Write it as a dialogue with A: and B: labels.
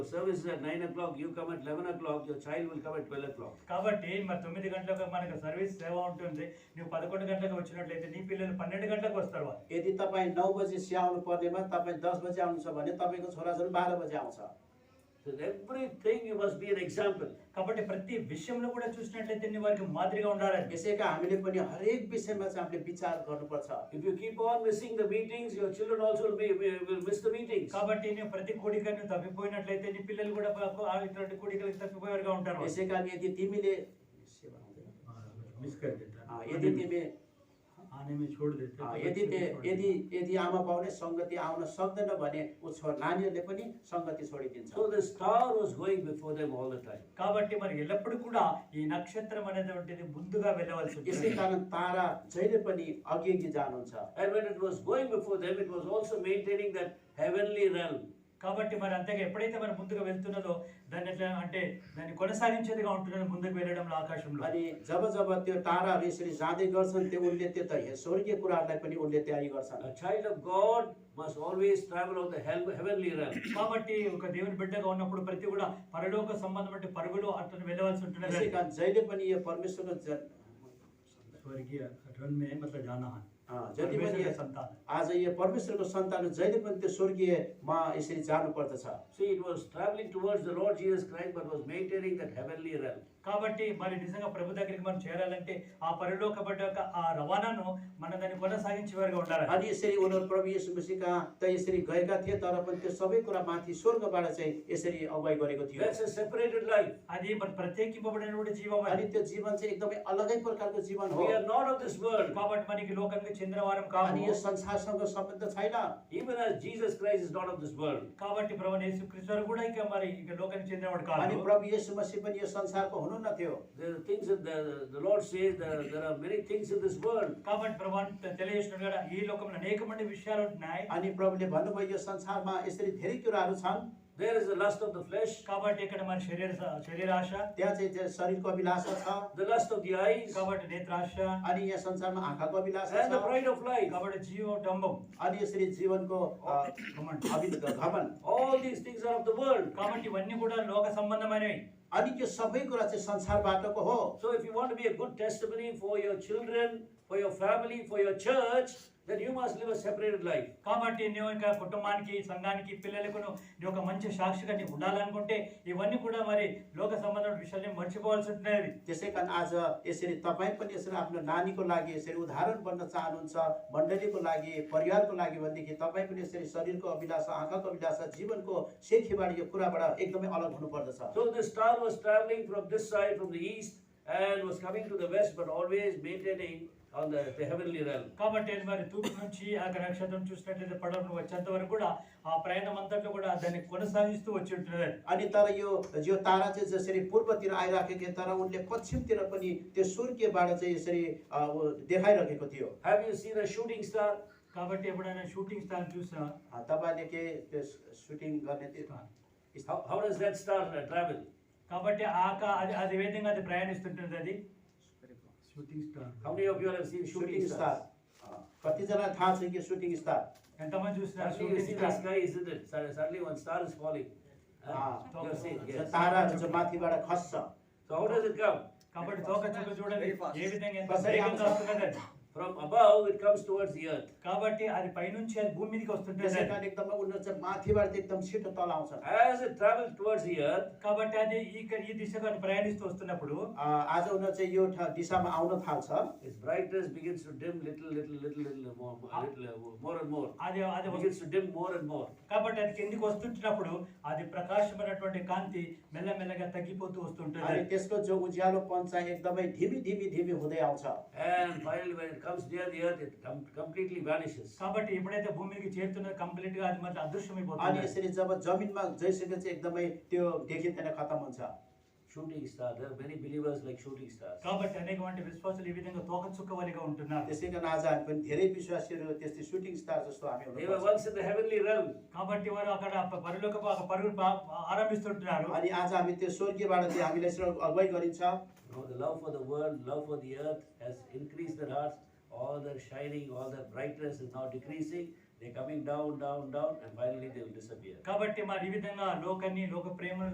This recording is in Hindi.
A: Service is at nine o'clock, you come at eleven o'clock, your child will come at twelve o'clock.
B: కాబట్టి మరి తొమ్మిది గంటలకు మనకు సర్వీస్ సేవ ఉంటుంది నువ్వు పదకొండు గంటలకు వచ్చినట్లయితే నీ పిల్లలు పన్నెండు గంటలకు వస్తారు వాళ్ళు
C: यदि तपाईँ नौ बजी चिया आउनु पर्नेमा तपाईँ दस बजी आउनुहुन्छ भने तपाईँको छोराछोरी बाह्र बजी आउँछ
A: So everything you must be an example.
B: కాబట్టి ప్రతి విషయంలో కూడా చూసినట్లయితే నీ వారికి మాదిరిగా ఉండాలని
C: यसैका हामीले पनि हरेक विषयमा चाहिँ हामीले विचार गर्नुपर्छ
A: If you keep on missing the meetings, your children also will be, will will miss the meetings.
B: కాబట్టి నువ్వు ప్రతి కోడికను తప్పిపోయినట్లయితే నీ పిల్లలు కూడా పాపం ఆ ఇటువంటి కోడికలకు తప్పిపోయేవారుగా ఉంటారు
C: यसै कारण यदि तिमीले सेवा हुँदैन।
D: मिस कर देता
C: अँ,
D: है
C: यदि तिमी
D: आने में छोड़ देते
C: अँ,
D: तो बच्चे
C: यदि ते-
D: छोड़
C: यदि यदि आमा बाउले सङ्गति आउन सक्दैन भने ऊ छोरा नानीहरूले पनि सङ्गति छोडिदिन्छ
A: So the star was going before them all the time.
B: కాబట్టి మరి ఎల్లప్పుడు కూడా ఈ నక్షత్రం అనేటువంటిది ముందుగా వెళ్ళవలసి
C: यसै
B: ఉంటుంది
C: कारण तारा जहिले पनि अघि अघि जानुहुन्छ
A: And when it was going before them, it was also maintaining that heavenly realm.
B: కాబట్టి మరి అంతగా ఎప్పుడైతే మనం ముందుగా వెళ్తున్నదో దాన్ని ఎట్లా అంటే దాన్ని కొనసాగించేదిగా ఉంటున్నది ముందుకు వెళ్ళడంలో ఆకాశంలో
C: अनि जब जब त्यो ताराहरू यसरी जाँदै गर्छन् त्यो उनले त्यो त हे- स्वर्गीय कुराहरूलाई पनि उनले तयारी गर्छन्
A: A child of God must always travel on the hel- heavenly realm.
B: కాబట్టి ఒక దేవుని బిడ్డగా ఉన్నప్పుడు ప్రతి కూడా పరలోక సంబంధం అంటే పరుగులు అట్లా వెళ్ళవలసి
C: यसै
B: ఉంటుంది
C: कारण जहिले पनि यो परमेश्वरको जन
D: स्वर्गीय रन में मतलब जाना है
C: अँ, जति पनि
B: परमेश्वर
C: यो-
B: సంతానం
C: आज यो परमेश्वरको सन्तान जहिले पनि त्यो स्वर्गीयमा यसरी जानुपर्दछ
A: See, it was traveling towards the Lord Jesus Christ, but was maintaining that heavenly realm.
B: కాబట్టి మరి నిజంగా ప్రభు దగ్గరికి మనం చేరాలంటే ఆ పరిలోక పడ్డ యొక్క ఆ రవాణాను మనం దాన్ని కొనసాగించే వారిగా ఉండాలి
C: अनि यसरी उनीहरू प्रभु यीशु मसीहका त यसरी गएका थिए तर पनि त्यो సबै कुरा माथि స్వర్గबाट चाहिँ यसरी अगुवाई गरेको थियो
A: That's a separated life.
B: అది మరి ప్రత్యేకింపబడినటువంటి జీవం
C: अनि
B: అది
C: त्यो जीवन चाहिँ एकदमै अलगै प्रकारको जीवन हो
A: We are not of this world.
B: కాబట్టి మనకి లోకానికి చెందిన వారం
C: अनि यो
B: కాదు
C: संसारसँग सम्बन्ध छैन
A: Even as Jesus Christ is not of this world.
B: కాబట్టి ప్రభు యేసు క్రీస్తు కూడా ఇక మరి ఇక లోకానికి చెందినవాడు
C: अनि
B: కాదు
C: प्रभु यीशु मसीह पनि यो संसारको हुनुहुन्न थियो
A: There are things that the, the Lord says there, there are many things in this world.
B: కాబట్టి ప్రభు తెలియజేస్తున్నాడు కదా ఈ లోకంలో అనేకమైన విషయాలు ఉన్నాయి
C: अनि प्रभुले भन्नुभयो यो संसारमा यसरी धेरै कुराहरू छन्
A: There is the lust of the flesh,
B: కాబట్టి ఇక్కడ మన శరీర శరీరాశ
C: त्यहाँ चाहिँ त्यो शरीरको अभिलाषा छ
A: the lust of the eyes,
B: కాబట్టి నేత్రాశ
C: अनि यहाँ संसारमा आँखाको अभिलाषा
A: and the
C: छ
A: pride of life.
B: కాబట్టి జీవ డంబం
C: अनि यसरी जीवनको अ,
B: ఘమం.
C: अभिल- घमन
A: All these things are of the world.
B: కాబట్టి ఇవన్నీ కూడా లోక సంబంధమైనవి
C: अनि त्यो सबै कुरा चाहिँ संसारबाटको हो
A: So if you want to be a good testimony for your children, for your family, for your church, then you must live a separated life.
B: కాబట్టి నువ్వు ఇంకా కుటుంబానికి సంఘానికి పిల్లలకు నువ్వు నీ ఒక మంచి సాక్షిగా నీవు ఉండాలనుకుంటే ఇవన్నీ కూడా మరి లోక సంబంధమైన విషయాన్ని మర్చిపోవాల్సి ఉంటుంది
C: त्यसै कारण आज यसरी तपाईँ पनि यसरी आफ्नो नानीको लागि यसरी उदाहरण बन्न चाहनुहुन्छ मण्डलीको लागि परिवारको लागि भनेदेखि तपाईँ पनि यसरी शरीरको अभिलाषा आँखाको अभिलाषा जीवनको सेखीबाट यो कुराबाट एकदमै अलग हुनुपर्दछ
A: So the star was traveling from this side, from the east, and was coming to the west, but always maintaining on the, the heavenly realm.
B: కాబట్టి మరి తూర్పు నుంచి ఆ గ్రహ నక్షత్రం చూసినట్లయితే పడవ నువ్వు వచ్చేంత వరకు కూడా ఆ ప్రయాణం అంతట్లో కూడా దాన్ని కొనసాగిస్తూ వచ్చి ఉంటుంది
C: अनि तर यो यो तारा चाहिँ जसरी पूर्वतिर आइराखेको थियो तर उनले पश्चिमतिर पनि त्यो सूर्यबाट चाहिँ यसरी अ, उ- देखाइरहेको थियो
A: Have you seen a shooting star?
B: కాబట్టి ఎప్పుడైనా షూటింగ్ స్టార్ చూసినా
C: अ, तपाईँले के त्यो सुटिङ गर्ने त्यो
A: How, how does that star uh, travel?
B: కాబట్టి ఆక అది అది ఏ విధంగా అది ప్రయాణిస్తుంటుంది అది
D: shooting star
A: How many of you all have seen shooting
C: shooting star
A: stars?
C: अ, कतिजनालाई थाहा छ कि సుటింగ్ స్టార్
B: ఎంతమంది చూసినారు
A: Suddenly you
B: shooting
A: see the
B: star
A: sky, isn't it? Sud- Suddenly one star is falling. Huh?
C: Ah.
A: You have seen,
C: जो
A: yes.
C: ताराहरू चाहिँ माथिबाट खस्छ
A: So how does it come?
B: కాబట్టి తోక చుక్క చూడండి ఏ విధంగా ఎంత
C: Very fast.
B: వేగంగా వస్తున్నది అది.
A: From above, it comes towards the earth.
B: కాబట్టి అది పైనుంచి అది భూమి మీదకి వస్తుంటుంది
C: त्यसै
B: అది.
C: कारण एकदमै उनीहरू चाहिँ माथिबाट चाहिँ एकदम छिटो तल आउँछ
A: As it travels towards the earth,
B: కాబట్టి అది ఇక్కడ ఈ దిశగా అది ప్రయాణిస్తూ వస్తున్నప్పుడు
C: आज उनीहरू चाहिँ यो ठ- दिशामा आउन थाल्छ
A: its brightness begins to dim little, little, little, little more, more- little, uh, more and more.
B: అది అది
A: It
B: వస్తు-
A: begins to dim more and more.
B: కాబట్టి అది కిందికి వస్తుంటున్నప్పుడు అది ప్రకాశమైనటువంటి కాంతి మెల్లమెల్లగా తగ్గిపోతూ వస్తుంటుంది
C: अनि त्यसको जो उज्यालोपन चाहिँ एकदमै धिमी धिमी धिमी हुँदै आउँछ
A: And finally, when it comes near the earth, it com- completely vanishes.
B: కాబట్టి ఎప్పుడైతే భూమి మీదకి చేరుతున్నది కంప్లీట్ గా అది మాత్రం
C: अनि
B: అదృశ్యమైపోతుంది
C: यसरी जब जमिनमा जइसके चाहिँ एकदमै त्यो देखिँदैन खतम हुन्छ
A: Shooting star. There are many believers like shooting stars.
B: కాబట్టి అనేకమంది విశ్వాసులు ఈ విధంగా తోక చుక్కవలిగా ఉంటున్నారు
C: त्यसै कारण आज हामी पनि धेरै विश्वासीहरू त्यस्तै सुटिङ स्टार जस्तो हामी
A: They were
C: हुनुपर्छ।
A: once in the heavenly realm.
B: కాబట్టి వారు అక్కడ ప- పరలోక ప- పరుగులు పా- ఆరంభిస్తుంటున్నారు
C: अनि आज हामी त्यो स्वर्गीयबाट चाहिँ हामीलाई यसरी अगुवाई गरिन्छ
A: You know, the love for the world, love for the earth has increased their hearts. All their shining, all their brightness is now decreasing. They're coming down, down, down, and finally they will disappear.
B: కాబట్టి మరి ఈ విధంగా లోకాన్ని లోక ప్రేమను